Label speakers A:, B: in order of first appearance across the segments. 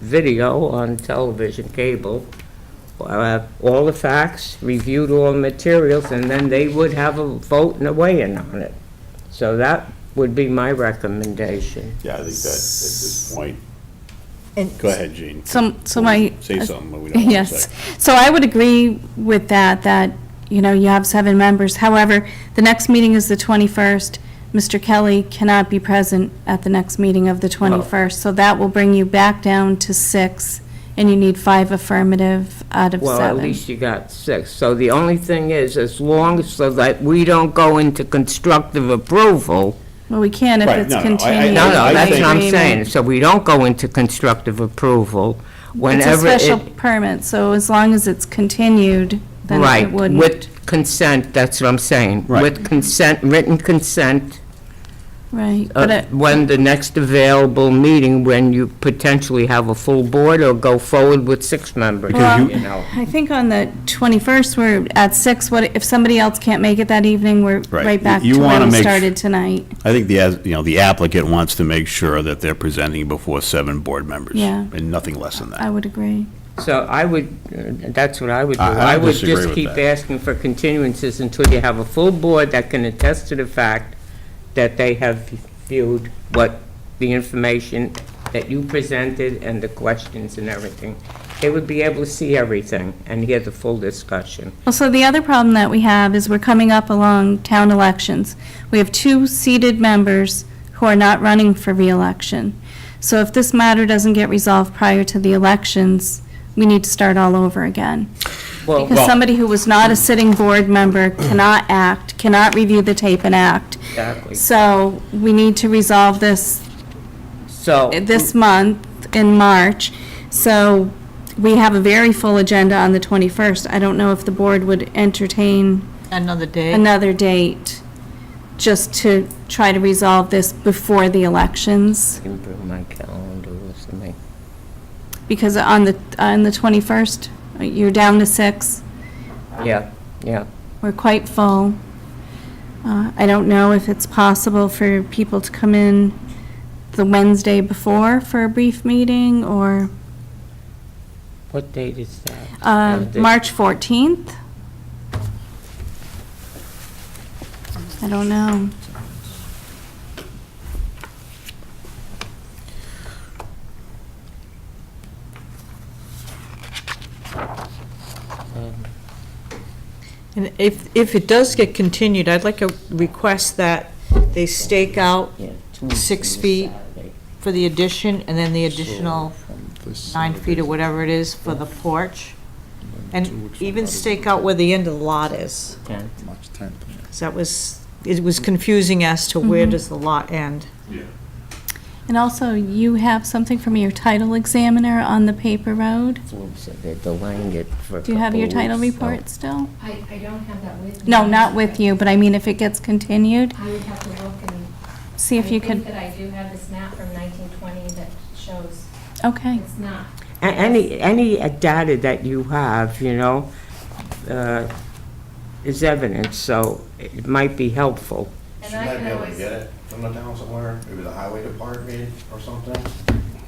A: video on television cable, uh, all the facts, reviewed all the materials, and then they would have a vote and a weigh-in on it. So that would be my recommendation.
B: Yeah, I think that, at this point,
C: And
B: go ahead, Gene.
D: Some, so my.
B: Say something, but we don't have to
D: Yes,
B: say.
D: so I would agree with that, that, you know, you have seven members. However, the next meeting is the 21st. Mr. Kelly cannot be present at the next meeting of the
B: Oh.
D: 21st, so that will bring you back down to six, and you need five affirmative out of
A: Well, at
D: seven.
A: least you got six. So the only thing is, as long as, so that we don't go into constructive approval,
D: Well, we can if
B: Right,
D: it's
B: no, no, I- I-
D: continued.
A: No,
B: I
A: no, that's
B: think-
A: what I'm
D: Agreement.
A: saying. So we don't go into constructive approval
D: It's a
A: whenever it...
D: special permit, so as long as it's continued, then it
A: Right,
D: wouldn't.
A: with consent, that's what I'm saying.
B: Right.
A: With consent, written consent,
D: Right,
A: uh,
D: but it-
A: when the next available meeting, when you potentially have a full board or go forward with six members,
D: Well-
A: you know.
D: I think on the 21st, we're at 6, what, if somebody else can't make it that evening, we're
B: Right.
D: right back
B: You
D: to where
B: wanna
D: we
B: make-
D: started tonight.
B: I think the, as- you know, the applicant wants to make sure that they're presenting before seven board members.
D: Yeah.
B: And nothing less than
D: I
B: that.
D: would agree.
A: So I would, uh, that's what I would do.
B: I- I
A: would
B: disagree
A: just
B: with
A: keep
B: that.
A: asking for continuances until you have a full board that can attest to the fact that they have viewed what the information that you presented and the questions and everything. They would be able to see everything and hear the full discussion.
D: Well, so the other problem that we have is we're coming up along town elections. We have two seated members who are not running for reelection. So if this matter doesn't get resolved prior to the elections, we need to start all over again.
A: Oh, Well,
D: Because somebody who was not a sitting board member cannot act, cannot review the tape and act.
A: exactly.
D: So we need to resolve this,
A: So,
D: this month, in March. So we have a very full agenda on the 21st. I don't know if the board would entertain
C: another day,
D: another date just to try to resolve this before the elections.
A: can bring my calendar with me.
D: Because on the, on the 21st, you're down to six.
A: Yeah, yeah.
D: We're quite full. Uh, I don't know if it's possible for people to come in the Wednesday before for a brief meeting or
A: What date is that?
D: Uh,
A: Wednesday.
D: March 14th? I don't know.
A: um,
C: and if, if it does get continued, I'd like a request that they stake out
A: Yeah, Tuesday
C: Six
A: or
C: feet.
A: Saturday.
C: for the addition, and then the additional nine feet or whatever it is for the porch, and even stake out where the end of the lot is,
A: Yeah.
E: March 10th.
C: 'cause that was, it was confusing as to where does the lot end.
D: And also, you have something from your title examiner on the paper road?
A: Oops, They're delaying it for a
D: Do you have your
A: couple
D: title
A: weeks, so-
D: report still?
F: I, I don't have that with me.
D: No, not with you, but I mean, if it gets continued,
F: I would have to look and.
D: see if you
F: I think
D: could,
F: that I do have this map from 1920 that shows
D: okay.
F: it's not.
A: A- Any, any uh, data that you have, you know, uh, is evidence, so it might be helpful.
F: And
G: She
F: I
G: might
F: can
G: be able to
F: always-
G: get it from the town somewhere, maybe the highway department or something.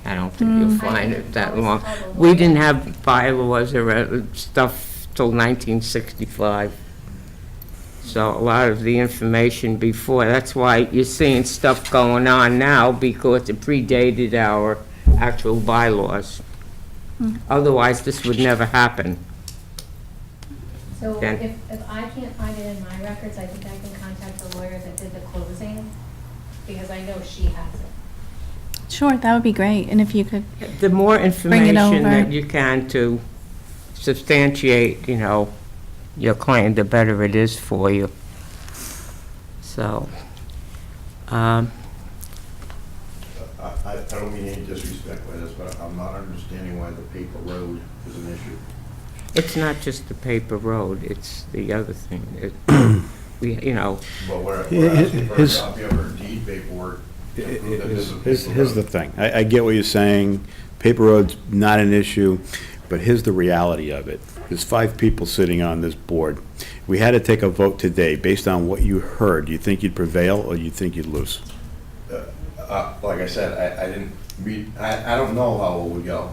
A: I don't think you'll
F: I
A: find
F: can
A: it that
F: always
A: long.
F: call the
A: We
F: lawyer.
A: didn't have bylaws or uh, stuff till 1965, so a lot of the information before, that's why you're seeing stuff going on now, because it predated our actual bylaws. Otherwise, this would never happen.
F: So
A: Then-
F: if, if I can't find it in my records, I think I can contact the lawyer that did the closing, because I know she has it.
D: Sure, that would be great, and if you could,
A: The more information that
D: over.
A: you can to substantiate, you know, your claim, the better it is for you. So, um,
G: I, I I don't mean any disrespect by this, but I'm not understanding why the paper road is an issue.
A: it's not just the paper road, it's the other thing. It- We, you know,
G: But
B: Hi-
G: we're, we're
B: hi-
G: asking for a
B: his-
G: copy of her deed paperwork to prove that there's a
B: Here's,
G: paper
B: here's the
G: road.
B: thing, I, I get what you're saying, paper road's not an issue, but here's the reality of it. There's five people sitting on this board. We had to take a vote today based on what you heard. Do you think you'd prevail or you think you'd lose?
G: Uh, Like I said, I, I didn't read, I, I don't know how it would go.